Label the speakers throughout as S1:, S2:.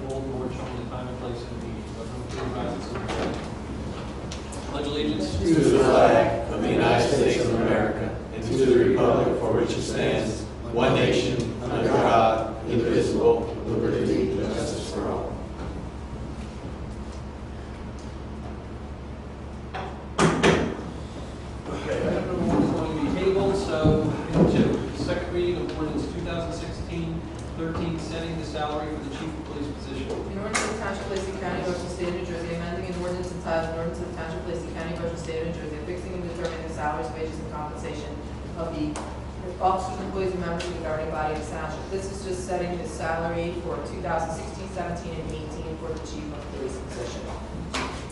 S1: showing the time and place of the meeting. Everyone please rise and pledge allegiance.
S2: To the flag of the United States of America and to the republic for which it stands, one nation, under God, indivisible, with liberty and justice for all.
S1: Okay, item number one is going to be tabled, so item two, second reading of ordinance 2016-13, setting the salary for the chief of police position.
S3: An ordinance of Township of Lacey County, Ocean State, New Jersey, amending an ordinance entitled, an ordinance of the Township of Lacey County, Ocean State, New Jersey, fixing and determining the salaries, wages, and compensation of the officers, employees, and members of the governing body of the township. This is just setting the salary for 2016, 17, and 18 for the chief of police position.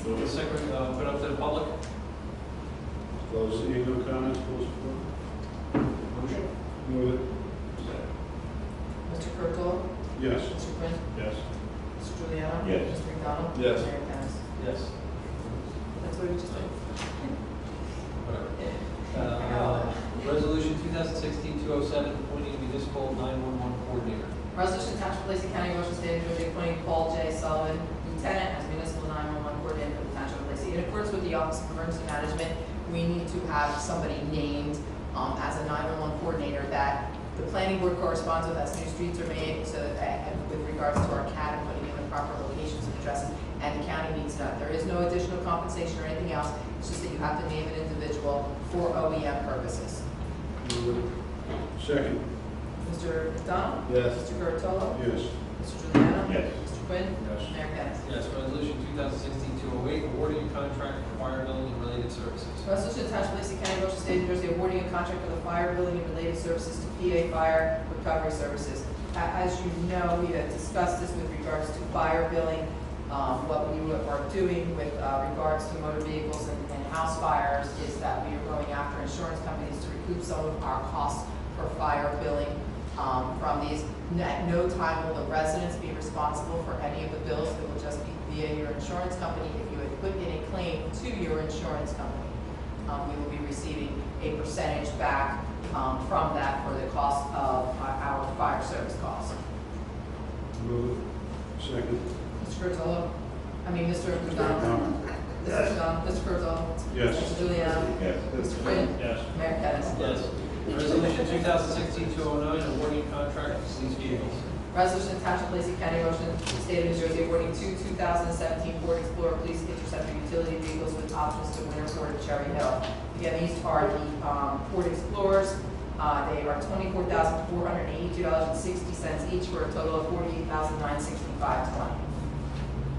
S1: Move the second, uh, put up to the public.
S4: Close. Any other comments, full support?
S1: Motion?
S4: Move it.
S3: Mr. Kurtolo?
S4: Yes.
S3: Mr. Quinn?
S4: Yes.
S3: Mr. Juliano?
S4: Yes.
S3: Mr. McDonald?
S4: Yes.
S3: Mayor Kennas.
S1: Yes.
S3: That's what we just did.
S1: Whatever. Uh, Resolution 2016-207, appointing municipal 911 coordinator.
S3: Resolution Township of Lacey County, Ocean State, New Jersey, appointing Paul J. Sullivan, Lieutenant, as Municipal 911 Coordinator for the Township of Lacey. In accordance with the Office of Emergency Management, we need to have somebody named um, as a 911 coordinator that the planning board corresponds with as new streets are made, so that, uh, with regards to our CAD and putting in the proper locations and addresses, and the county needs that. There is no additional compensation or anything else, it's just that you have to name an individual for OEM purposes.
S4: Move it. Second.
S3: Mr. McDonald?
S4: Yes.
S3: Mr. Curatolo?
S4: Yes.
S3: Mr. Juliano?
S4: Yes.
S3: Mr. Quinn?
S4: Yes.
S3: Mayor Kennas.
S1: Yes, resolution 2016-208, awarding a contract for fire building and related services.
S3: Resolution to Township of Lacey County, Ocean State, New Jersey, awarding a contract for the fire building and related services to PA Fire Recovery Services. A- As you know, we had discussed this with regards to fire billing, um, what we were- are doing with uh, regards to motor vehicles and and house fires is that we are going after insurance companies to recoup some of our costs for fire billing um, from these. N- At no time will the residents be responsible for any of the bills, it will just be via your insurance company if you had put in a claim to your insurance company um, we will be receiving a percentage back, um, from that for the cost of our- our fire service costs.
S4: Move it. Second.
S3: Mr. Curatolo? I mean, Mr. McDonald? Mr. McDonald, Mr. Curatolo?
S4: Yes.
S3: Mr. Juliano?
S4: Yes.
S3: Mr. Quinn?
S4: Yes.
S3: Mayor Kennas.
S1: Yes. Resolution 2016-209, awarding a contract for police vehicles.
S3: Resolution to Township of Lacey County, Ocean State of New Jersey, awarding two 2017 Ford Explorer Police Interceptor utility vehicles with options to Winter Ford and Cherry Hill. Again, these are the um, Ford Explorers. Uh, They are $24,482.60 each for a total of $48,965.20.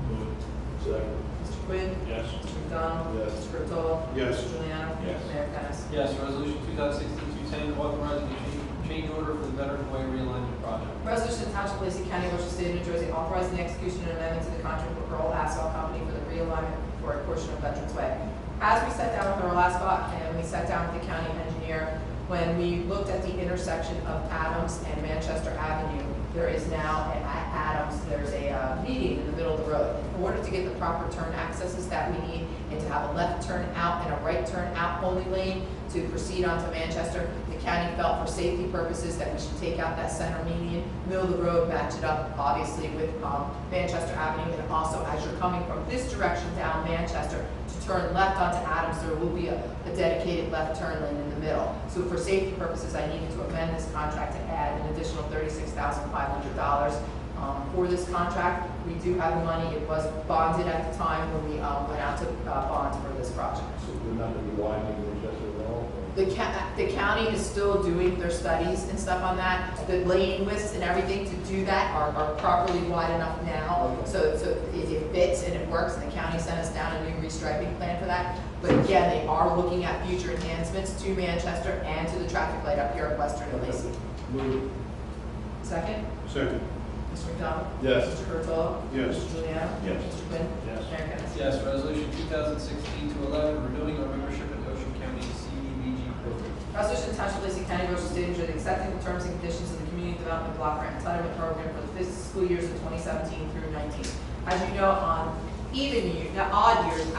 S4: Move it. Second.
S3: Mr. Quinn?
S4: Yes.
S3: Mr. McDonald?
S4: Yes.
S3: Mr. Curatolo?
S4: Yes.
S3: Mr. Juliano?
S4: Yes.
S3: Mayor Kennas.
S1: Yes, resolution 2016-210, authorizing a change- change order for the Veteran Way realignment project.
S3: Resolution to Township of Lacey County, Ocean State, New Jersey, authorizing the execution and amendment to the contract with Earl Asphalt Company for the realignment for a portion of Veterans Way. As we sat down with Earl Asphalt and we sat down with the county engineer, when we looked at the intersection of Adams and Manchester Avenue, there is now at Adams, there's a uh, median in the middle of the road. In order to get the proper turn accesses that we need and to have a left turn out and a right turn out only lane to proceed onto Manchester, the county felt for safety purposes that we should take out that center median, middle of the road, match it up, obviously, with um, Manchester Avenue, and also as you're coming from this direction down Manchester to turn left onto Adams, there will be a a dedicated left turn lane in the middle. So for safety purposes, I needed to amend this contract to add an additional thirty-six thousand five hundred dollars um, for this contract. We do have the money, it was bonded at the time when we um, went out to uh, bond for this project.
S5: So we're not going to be widening Winchester at all?
S3: The ca- the county is still doing their studies and stuff on that. The lane widths and everything to do that are, are properly wide enough now. So, so it, it fits and it works, and the county sent us down a new restriping plan for that. But again, they are looking at future enhancements to Manchester and to the traffic light up here at Western and Lacey.
S4: Move
S3: Second,
S4: it. Second.
S3: Mr. McDonald?
S4: Yes.
S3: Mr. Curatolo?
S4: Yes.
S3: Mr. Juliano?
S4: Yes.
S3: Mr. Quinn?
S4: Yes.
S3: Mayor Kennas.
S1: Yes, resolution 2016-211, renewing our membership in Ocean County CDBG program.
S3: Resolution to Township of Lacey County, Ocean State, New Jersey, accepting the terms and conditions of the Community Development Block Grant Entitlement Program for the fiscal years of 2017 through 19. As you know, on even year, the odd years,